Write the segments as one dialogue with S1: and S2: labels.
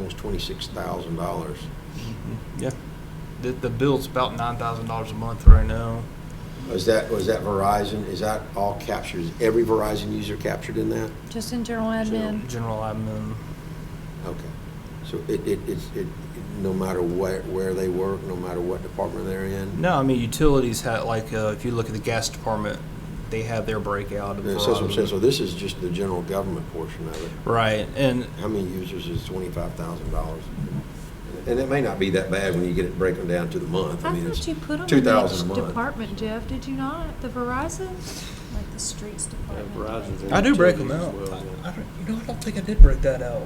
S1: is twenty-six thousand dollars.
S2: Yeah. Mm-hmm. The, the bill's about nine thousand dollars a month right now.
S1: Is that, was that Verizon, is that all captured, is every Verizon user captured in that?
S3: Just in general admin.
S2: General admin.
S1: Okay. So it, it, it's, it, no matter what, where they work, no matter what department they're in?
S2: No, I mean utilities had like uh, if you look at the gas department, they have their breakout. Of
S1: And so that's what I'm saying,
S2: Verizon.
S1: so this is just the general government portion of it.
S2: Right, and
S1: How many users is twenty-five thousand dollars? And it may not be that bad when you get it broken down to the month. I
S3: I
S1: mean, it's
S3: thought you put them
S1: two
S3: in
S1: thousand
S3: each
S1: a month.
S3: department, Jeff, did you not? The Verizon?
S4: like the streets department.
S5: Verizon's in
S2: I do break them
S5: utilities
S2: out.
S5: as well,
S2: I,
S5: yeah.
S2: I don't, you know, I don't think I did break that out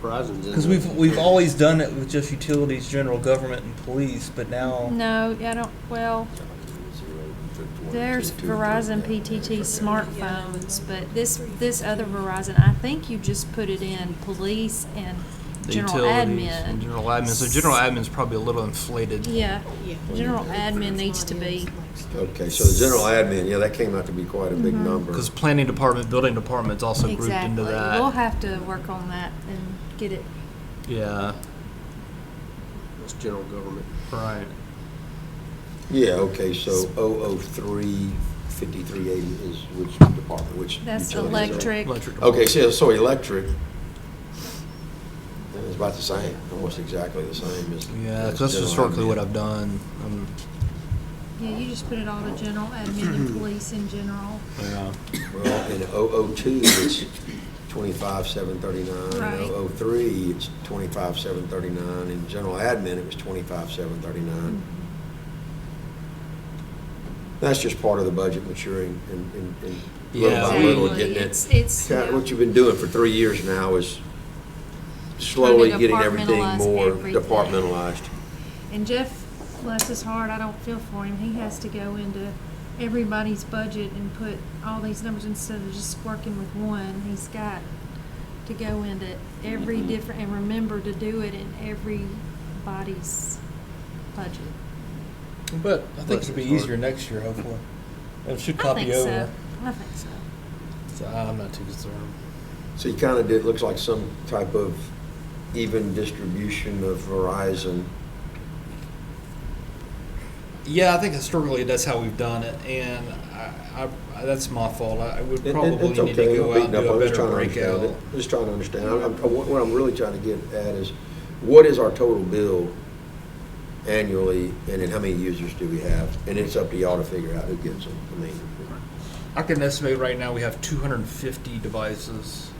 S5: Verizon's in
S2: because
S5: the-
S2: we've we've always done it with just utilities, general government, and police, but now
S3: No, I don't, well, there's Verizon PTT smartphones, but this, this other Verizon, I think you just put it in police and
S2: the
S3: general
S2: utilities and
S3: admin.
S2: general admin. So general admin's probably a little inflated.
S3: Yeah, general admin needs to be,
S1: Okay, so the general admin, yeah, that came out to be quite a big
S3: Mm-hmm.
S1: number.
S2: Because planning department, building department's also grouped
S3: exactly.
S2: into that.
S3: We'll have to work on that and get it
S2: yeah,
S5: It's general government.
S2: right.
S1: Yeah, okay, so 003, 5380 is which department, which?
S3: That's
S1: utilities are-
S3: electric.
S2: Electric
S1: Okay, so, so electric, it's about the same, almost exactly the same as.
S2: Yeah,
S1: as
S2: because that's
S1: general
S2: historically what
S1: admin.
S2: I've done. Um,
S3: Yeah, you just put it all to general admin and police in general.
S2: yeah.
S1: Well, oh in 002, it's 25,739.
S3: Right.
S1: In 003, it's 25,739. In general admin, it was
S3: Mm.
S1: 25,739. That's just part of the budget maturing and- and and little by
S2: Yeah, we-
S1: little getting
S3: It's,
S1: it.
S3: it's.
S1: Kind of What you've been doing for three years now is slowly getting everything
S3: Departmentalize
S1: more
S3: everything.
S1: departmentalized.
S3: And Jeff, bless his heart, I don't feel for him. He has to go into everybody's budget and put all these numbers instead of just working with one. He's got to go into every
S1: Mm-hmm.
S3: different, and remember to do it in everybody's budget.
S2: But I
S1: think it'll be easier
S2: next year, hopefully. It should
S3: I think so. I think so.
S2: So I'm not too concerned.
S1: So you kind of did, looks like some type of even distribution of Verizon.
S2: Yeah, I think historically that's how we've done it, and I, I, I that's my fault. I, I would
S1: It- it-
S2: probably
S1: it's
S2: need to
S1: okay.
S2: go
S1: Beat
S2: out and
S1: up.
S2: do
S1: I'm
S2: a
S1: just
S2: better
S1: trying to understand
S2: breakout.
S1: it. Just trying to understand. I'm, I'm- what what I'm really trying to get at is, what is our total bill annually, and then how many users do we have? And it's up to y'all to figure out who gets them. I mean,
S2: I can estimate right now we have 250 devices.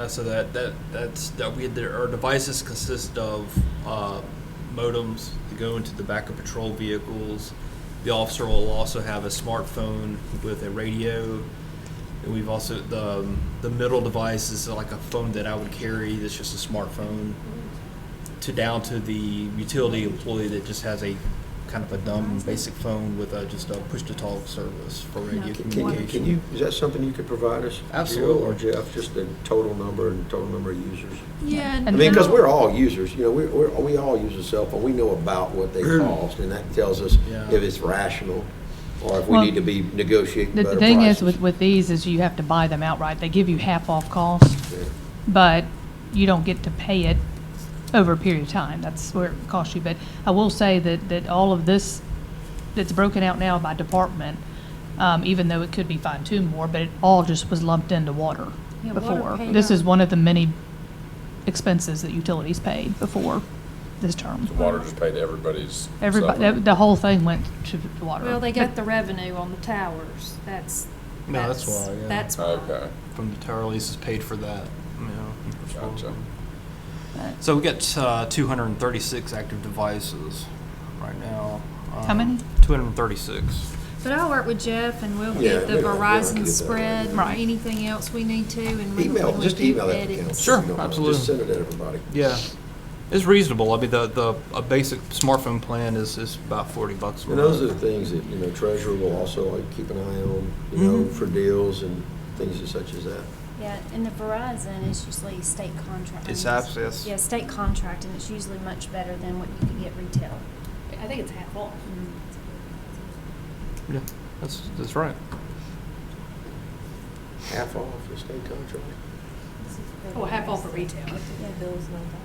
S2: Uh, so that that that's that we there our devices consist of uh, modems that go into the back of patrol vehicles. The officer will also have a smartphone with a radio, and we've also the um, the middle device is like a phone that I would carry. That's just a smartphone. To down to the utility employee that just has a kind of a dumb basic phone with a, just a push to talk service for radio
S3: Yeah.
S1: can- can you,
S2: communication.
S1: can you, is that something you could provide us? Jill
S2: Absolutely.
S1: Or Jeff, just the total number and total number of users?
S3: Yeah.
S1: I mean, because we're all users, you know, we, we're, we all use a cell phone, we know about what they cost, and that tells us
S2: Yeah.
S1: if it's rational, or if we
S6: Well,
S1: need to be negotiating
S6: The
S1: better
S6: the thing is
S1: prices.
S6: with, with these is you have to buy them outright. They give you half off cost,
S1: Yeah.
S6: but you don't get to pay it over a period of time. That's where it costs you. But I will say that, that all of this, that's broken out now by department, um, even though it could be fine tuned more, but it all just was lumped into water
S3: Yeah, water
S6: before.
S3: paid
S6: This is
S3: out.
S6: one of the many expenses that utilities paid before this term.
S7: The water just paid everybody's.
S6: Everybody,
S7: separate.
S6: the whole thing went to to water.
S3: Well, they got
S6: But-
S3: the revenue on the towers. That's.
S2: No, that's why, yeah.
S3: That's why.
S7: Okay.
S2: from the tower leases paid for that. You know, as well.
S7: Gotcha.
S6: but-
S2: So we got uh, 236 active devices right now. Um,
S6: How many?
S2: 236.
S3: But I'll work with Jeff and we'll
S1: Yeah,
S3: get
S1: we
S3: the
S1: don't- we don't need
S3: Verizon
S1: that.
S3: spread, or
S6: Right.
S3: anything else we need to, and we
S1: Email,
S3: we
S1: just
S3: do
S1: email that to
S3: edits.
S1: council.
S2: Sure,
S1: you don't mind.
S2: absolutely.
S1: Just send it to everybody.
S2: Yeah, it's reasonable. I mean, the the a basic smartphone plan is is about 40 bucks. a
S1: And those are
S2: month.
S1: the things that, you know, treasurer will also like, keep an eye on, you know,
S2: Mhm.
S1: for deals and things such as that.
S4: Yeah, and the Verizon is usually state contract.
S2: It's abs- yes.
S4: Yeah, state contract, and it's usually much better than what you could get retail.
S8: I think it's half off.
S2: Yeah, that's that's right.
S1: Half off the state contract.
S8: Well, Oh, half off for retail.
S4: Yeah.
S8: Bill's not that.